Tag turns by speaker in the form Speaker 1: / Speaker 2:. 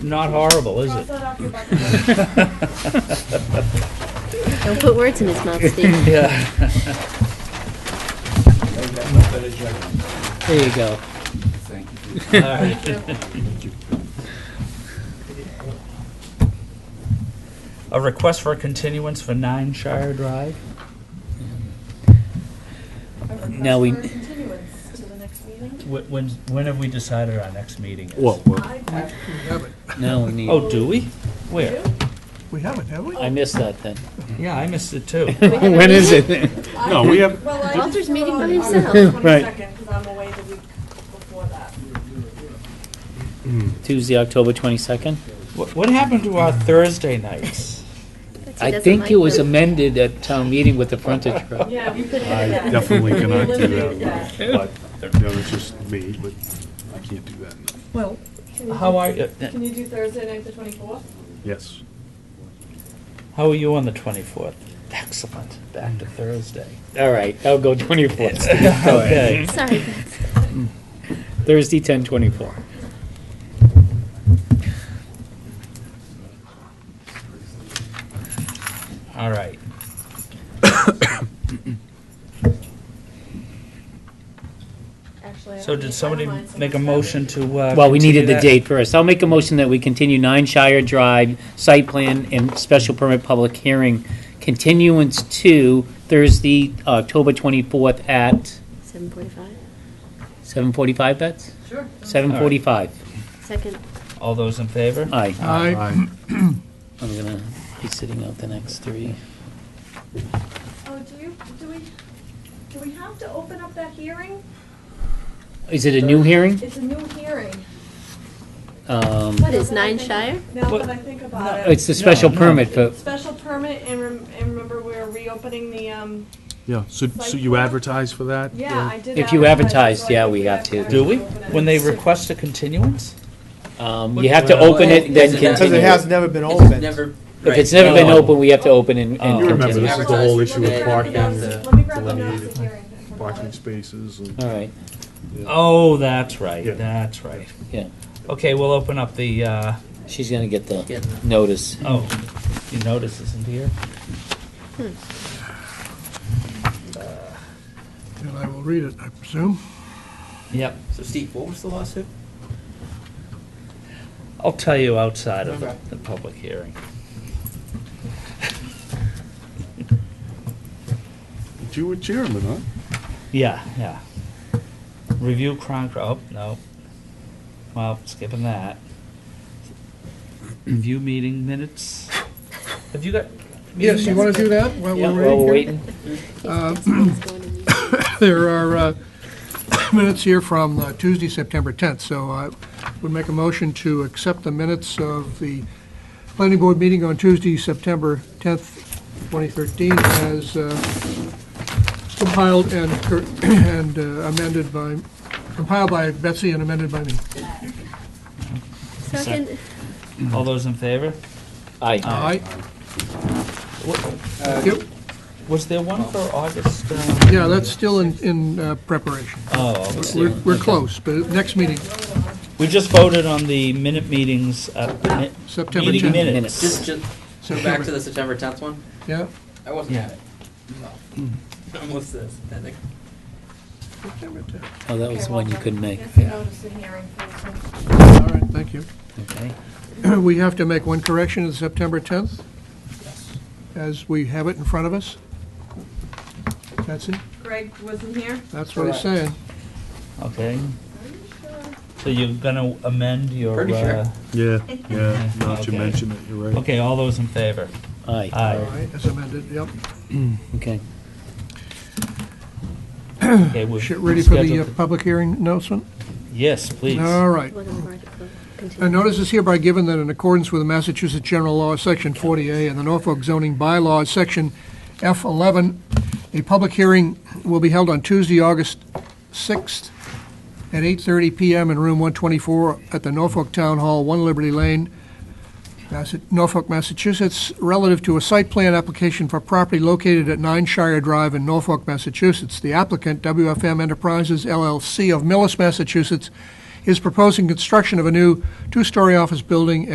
Speaker 1: not horrible, is
Speaker 2: Cross
Speaker 1: it?
Speaker 2: that off your bucket list.
Speaker 3: Don't put words in his mouth, Steve.
Speaker 1: Yeah, there you go. Thank you. All right. A request for a continuance for Nine Shire Drive?
Speaker 2: A request
Speaker 1: Now we-
Speaker 2: for a continuance to the next meeting.
Speaker 1: Wh- When, when have we decided our next meeting is?
Speaker 4: Well,
Speaker 2: I-
Speaker 5: Now we need,
Speaker 1: Oh, do we? Where?
Speaker 6: We haven't, have we?
Speaker 5: I missed that then.
Speaker 1: Yeah, I missed it too.
Speaker 4: when is it?
Speaker 2: I-
Speaker 4: No, we have-
Speaker 2: Well, I just
Speaker 3: Walter's
Speaker 2: put
Speaker 3: meeting by
Speaker 2: on August
Speaker 3: himself.
Speaker 2: 22nd, 'cause I'm away the week before that.
Speaker 5: Tuesday, October 22nd?
Speaker 1: What what happened to our Thursday nights?
Speaker 3: Betsy
Speaker 5: I
Speaker 3: doesn't
Speaker 5: think
Speaker 3: like
Speaker 5: it was
Speaker 3: them.
Speaker 5: amended at town meeting with the frontage road.
Speaker 2: Yeah, we could
Speaker 4: I
Speaker 2: add that.
Speaker 4: definitely cannot do
Speaker 2: Eliminate
Speaker 4: that, but, no, it's just me, but I can't do that, no.
Speaker 1: Well,
Speaker 2: Can you
Speaker 1: how
Speaker 2: do-
Speaker 1: are, you?
Speaker 2: Can you do Thursday night, the 24th?
Speaker 4: yes.
Speaker 1: how are you on the 24th? Excellent, back to Thursday.
Speaker 5: All right, I'll go 24th.
Speaker 1: Okay.
Speaker 3: Sorry, Betsy.
Speaker 5: Thursday, 10:24.
Speaker 1: All right.
Speaker 2: Actually, I
Speaker 1: So
Speaker 2: don't
Speaker 1: did
Speaker 2: think-
Speaker 1: somebody
Speaker 2: never mind, so
Speaker 1: make a
Speaker 2: it's
Speaker 1: motion to, uh?
Speaker 5: Well, we
Speaker 1: continue
Speaker 5: needed the
Speaker 1: that?
Speaker 5: date first. I'll make a motion that we continue 9 Shire Drive site plan and special permit public hearing continuance to Thursday, October 24th at
Speaker 3: 7:45.
Speaker 5: 7:45, Bets?
Speaker 2: Sure.
Speaker 5: 7:45.
Speaker 3: Second.
Speaker 1: All those in favor?
Speaker 5: Aye.
Speaker 4: Aye.
Speaker 5: I'm gonna be sitting out the next three.
Speaker 2: Oh, do you, do we, do we have to open up that hearing?
Speaker 5: Is it a new hearing?
Speaker 2: It's a new hearing.
Speaker 5: Um,
Speaker 3: What is Nine Shire?
Speaker 2: Now
Speaker 1: What?
Speaker 2: that I think about it,
Speaker 5: It's the special
Speaker 1: No, no.
Speaker 5: permit for,
Speaker 2: special permit, and rem- and remember, we're reopening the, um,
Speaker 4: Yeah, so, so you advertise for that?
Speaker 2: yeah, I did.
Speaker 5: If you
Speaker 2: advertise,
Speaker 5: advertised,
Speaker 2: so I
Speaker 5: yeah,
Speaker 2: think
Speaker 5: we have to.
Speaker 1: Do we?
Speaker 2: open it.
Speaker 1: When they request a continuance?
Speaker 5: um, you have to open it, then
Speaker 7: Because it
Speaker 5: continue.
Speaker 7: has
Speaker 5: If
Speaker 6: never been
Speaker 7: It's never. right.
Speaker 5: it's never been
Speaker 1: Oh.
Speaker 5: open, we have to open and
Speaker 1: Oh.
Speaker 5: and
Speaker 4: You remember,
Speaker 5: continue.
Speaker 4: this is the whole issue
Speaker 2: Let me
Speaker 4: with
Speaker 2: grab the
Speaker 4: parking,
Speaker 2: notice- Let me grab the notice
Speaker 4: delineated
Speaker 2: of hearing. I forgot
Speaker 4: parking
Speaker 2: it.
Speaker 4: spaces and.
Speaker 5: All right,
Speaker 1: Oh, that's right,
Speaker 4: Yeah.
Speaker 1: that's right.
Speaker 5: yeah.
Speaker 1: Okay, we'll open up the, uh,
Speaker 5: She's gonna get
Speaker 7: Yeah.
Speaker 5: the notice.
Speaker 1: oh, your notice isn't here.
Speaker 6: And I will read it, I presume.
Speaker 1: Yep,
Speaker 7: So Steve, what was the lawsuit?
Speaker 1: I'll tell you outside of the
Speaker 7: Okay.
Speaker 1: the public hearing.
Speaker 4: You were chairman, huh?
Speaker 1: Yeah, yeah. Review Concord, oh, no. Well, skipping that. Review meeting minutes. Have you got?
Speaker 6: Yes, you want to do that while
Speaker 5: Yeah,
Speaker 6: we're
Speaker 5: while we're
Speaker 6: waiting?
Speaker 5: waiting. Um,
Speaker 3: Yes, Betsy is going in these.
Speaker 6: here? There are uh, minutes here from uh, Tuesday, September 10th, so I would make a motion to accept the minutes of the planning board meeting on Tuesday, September 10th, 2013, as uh, compiled and cor- and uh, amended by, compiled by Betsy and amended by me.
Speaker 3: Second.
Speaker 1: All those in favor?
Speaker 5: Aye.
Speaker 6: Aye.
Speaker 1: Wa-
Speaker 6: Yep.
Speaker 1: Was there one for August? uh,
Speaker 6: Yeah, that's still in in uh, preparation.
Speaker 1: Oh, okay.
Speaker 6: We're we're close, but next meeting,
Speaker 1: we just voted on the minute meetings, uh, mi-
Speaker 6: September
Speaker 1: meeting
Speaker 6: 10th.
Speaker 7: Just,
Speaker 1: minutes.
Speaker 7: just, go back
Speaker 6: September.
Speaker 7: to the September tenth one?
Speaker 6: Yeah,
Speaker 7: I wasn't
Speaker 1: Yeah.
Speaker 7: at it. Almost this. I think.
Speaker 6: September 10th.
Speaker 5: Oh, that was
Speaker 2: Okay,
Speaker 5: the one you
Speaker 2: Walter.
Speaker 5: couldn't make.
Speaker 2: Yes, the notice of hearing for this one.
Speaker 6: All right, thank you.
Speaker 5: Okay.
Speaker 6: We have to make one correction to September 10th, as we have it in front of us. That's it,
Speaker 2: Greg wasn't here?
Speaker 6: that's what he's saying.
Speaker 1: Okay. So you're gonna amend your.
Speaker 7: Pretty sure.
Speaker 1: uh,
Speaker 4: Yeah, yeah, now that
Speaker 1: Okay.
Speaker 4: you mention it, you're right.
Speaker 1: Okay, all those in favor?
Speaker 5: Aye,
Speaker 6: All
Speaker 1: Aye.
Speaker 6: right, as amended, yep.
Speaker 5: okay.
Speaker 1: Okay, we've
Speaker 6: Shit, Ready for the uh,
Speaker 1: scheduled the-
Speaker 6: public hearing announcement?
Speaker 1: Yes, please.
Speaker 6: All right.
Speaker 3: Well, then we're at- we'll
Speaker 6: A
Speaker 3: continue.
Speaker 6: notice is hereby given that in accordance with the Massachusetts General Law, Section 40A, and the Norfolk zoning bylaws, Section F11, a public hearing will be held on Tuesday, August 6th at 8:30 PM in Room 124 at the Norfolk Town Hall, 1 Liberty Lane, Massa- Norfolk, Massachusetts, relative to a site plan application for property located at 9 Shire Drive in Norfolk, Massachusetts. The applicant, WFM Enterprises LLC of Millis, Massachusetts, is proposing construction of a new two-story office building